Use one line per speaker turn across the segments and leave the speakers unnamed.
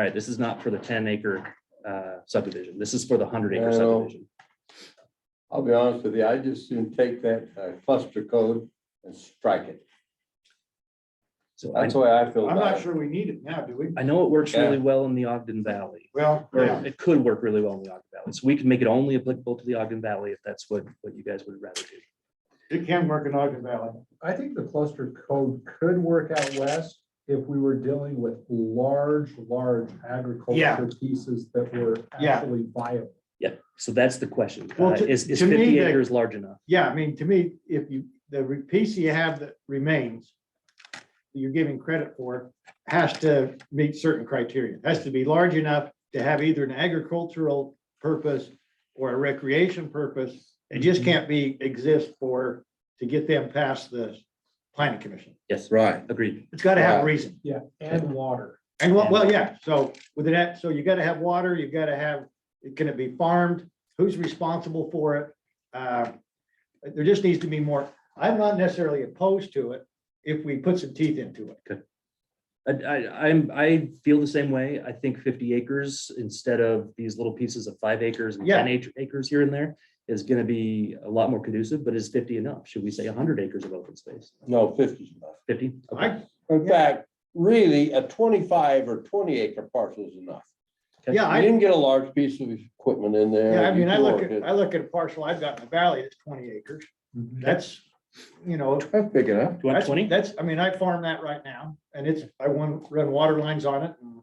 All right, this is not for the ten acre uh, subdivision. This is for the hundred
I
acre
know.
subdivision.
I'll be honest with you, I just soon take that uh, cluster code and strike it.
So I,
That's the way I feel
I'm
about
not
it.
sure we need it now, do we?
I know it works really
Yeah.
well in the Ogden Valley.
Well,
Or
yeah,
it could work really well in the Ogden Valley. So we can make it only applicable to the Ogden Valley if that's what, what you guys would rather do.
it can work in Ogden Valley.
I think the cluster code could work out west if we were dealing with large, large
Yeah.
agriculture pieces that were
Yeah.
actually viable.
So that's the question.
Well,
Uh,
to-
Is, is
to me,
fifty
the-
acres large enough?
Yeah, I mean, to me, if you, the re- piece you have that remains, you're giving credit for, has to meet certain criteria. Has to be large enough to have either an agricultural purpose or a recreation purpose. It just can't be, exist for, to get them past the planning commission.
Yes,
Right.
agreed.
It's gotta have a
Right.
reason.
Yeah, and water.
And well, well, yeah, so with that, so you gotta have water, you gotta have, can it be farmed? Who's responsible for it? Uh, There just needs to be more. I'm not necessarily opposed to it if we put some teeth into it.
I, I, I'm, I feel the same way. I think fifty acres instead of these little pieces of five acres and
Yeah.
ten ac- acres here and there is gonna be a lot more conducive, but is fifty enough? Should we say hundred acres of open space?
No, fifty's enough.
Fifty?
I,
In fact, really, a twenty-five or twenty acre parcel is enough.
yeah,
You
I,
didn't get a large piece of equipment in there.
yeah, I mean, I
You
look
can
at, I
work
look at a parcel I've got in the valley, it's twenty acres. That's, you know,
it. That's big enough.
Do you want
that's,
twenty?
that's, I mean, I farm that right now and it's, I want, run water lines on it. and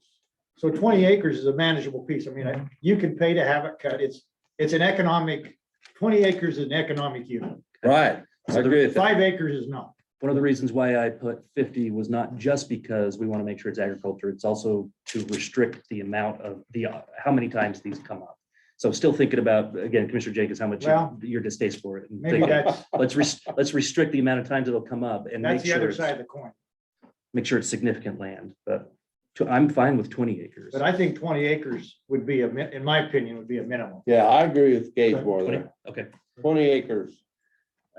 So twenty acres is a manageable piece. I mean,
Mm-hmm.
I- you can pay to have it cut. It's, it's an economic, twenty acres is an economic unit.
Right. I
So the-
agree with that.
Five acres is not.
One of the reasons why I put fifty was not just because we want to make sure it's agriculture, it's also to restrict the amount of the, uh, how many times these come up. So still thinking about, again, Commissioner Jacobs, how much you-
Well,
your distaste for it. and
Maybe
thinking,
that's,
Let's, rest- let's restrict the amount of times it'll come up and
that's
make
the
sure,
other
it's-
side of the coin.
make sure it's significant land, but to- I'm fine with twenty acres.
But I think twenty acres would be a, min- in my opinion, would be a minimum.
Yeah, I agree with Gabe more
20
there.
Okay,
Twenty acres.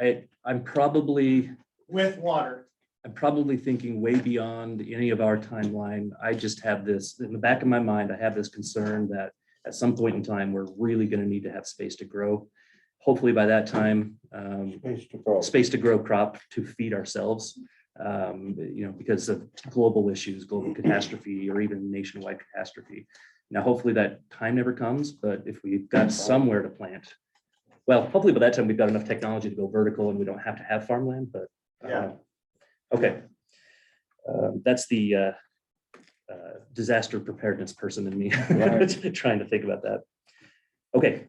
I, I'm probably,
With water.
I'm probably thinking way beyond any of our timeline. I just have this, in the back of my mind, I have this concern that at some point in time, we're really gonna need to have space to grow. Hopefully by that time, um,
Space to grow.
space to grow crop to feed ourselves. um, you know, because of global issues, global catastrophe, or even nationwide catastrophe. Now, hopefully that time never comes, but if we've got somewhere to plant, well, hopefully by that time, we've got enough technology to go vertical and we don't have to have farmland, but. uh,
Yeah.
Okay. Um, That's the uh, uh, disaster preparedness person in me,
Right.
trying to think about that. Okay.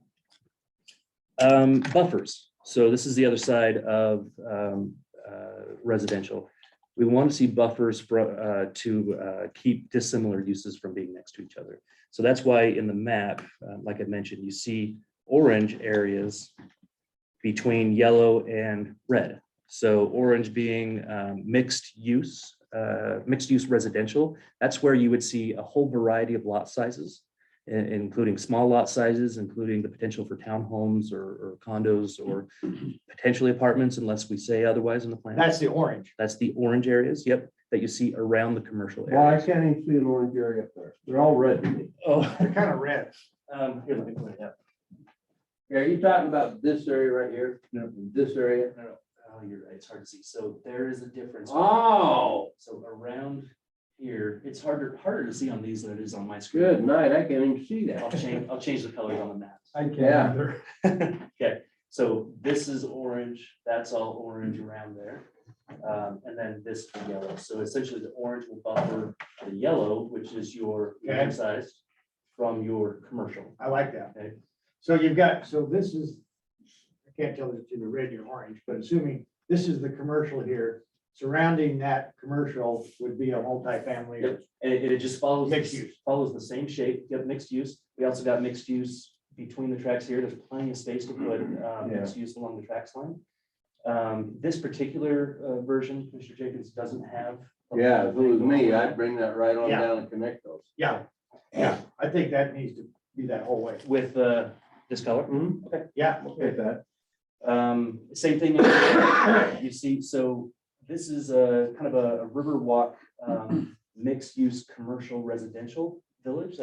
Um, Buffers. So this is the other side of um, uh, residential. We want to see buffers for, uh, to uh, keep dissimilar uses from being next to each other. So that's why in the map, uh, like I mentioned, you see orange areas between yellow and red. So orange being um, mixed use, uh, mixed use residential. That's where you would see a whole variety of lot sizes, i- including small lot sizes, including the potential for townhomes or or condos or potentially apartments unless we say otherwise in the plan.
That's the orange.
That's the orange areas, yep, that you see around the commercial
Well,
area.
I can't even see an orange area up there. They're all red to me.
Oh.
They're kind of red.
um, here, let me point it out.
Yeah, you talking about this area right here?
No.
This area?
No, no, Oh, you're right, it's hard to see. So there is a difference.
Oh,
So around here, it's harder, harder to see on these than it is on my screen.
good night. I can't even see
I'll
that.
change, I'll change the colors on the map.
I can't
Yeah.
either.
Okay, so this is orange, that's all orange around there. Um, and then this is yellow. So essentially the orange will buffer the yellow, which is your
Okay.
land size from your commercial.
I like that.
Okay.
So you've got, so this is, I can't tell if it's either red or orange, but assuming this is the commercial here, surrounding that commercial would be a multifamily. or-
And it, it just follows.
Mixed
this-
use.
Follows the same shape, you have mixed use, we also got mixed use between the tracks here, there's plenty of space to put, uh,
Mm-hmm. Yeah.
mixed use along the tracks line. Um, this particular, uh, version, Mr. Jenkins doesn't have. a
Yeah, if it was me,
lot
I'd
of-
bring that right on
Yeah.
down and connect those.
Yeah, yeah, I think that needs to be that whole way.
With, uh, this color.
Mm-hmm.
Yeah.
that.
Um, same thing, in- you see, so this is a kind of a a river walk, um, mixed use, commercial, residential. village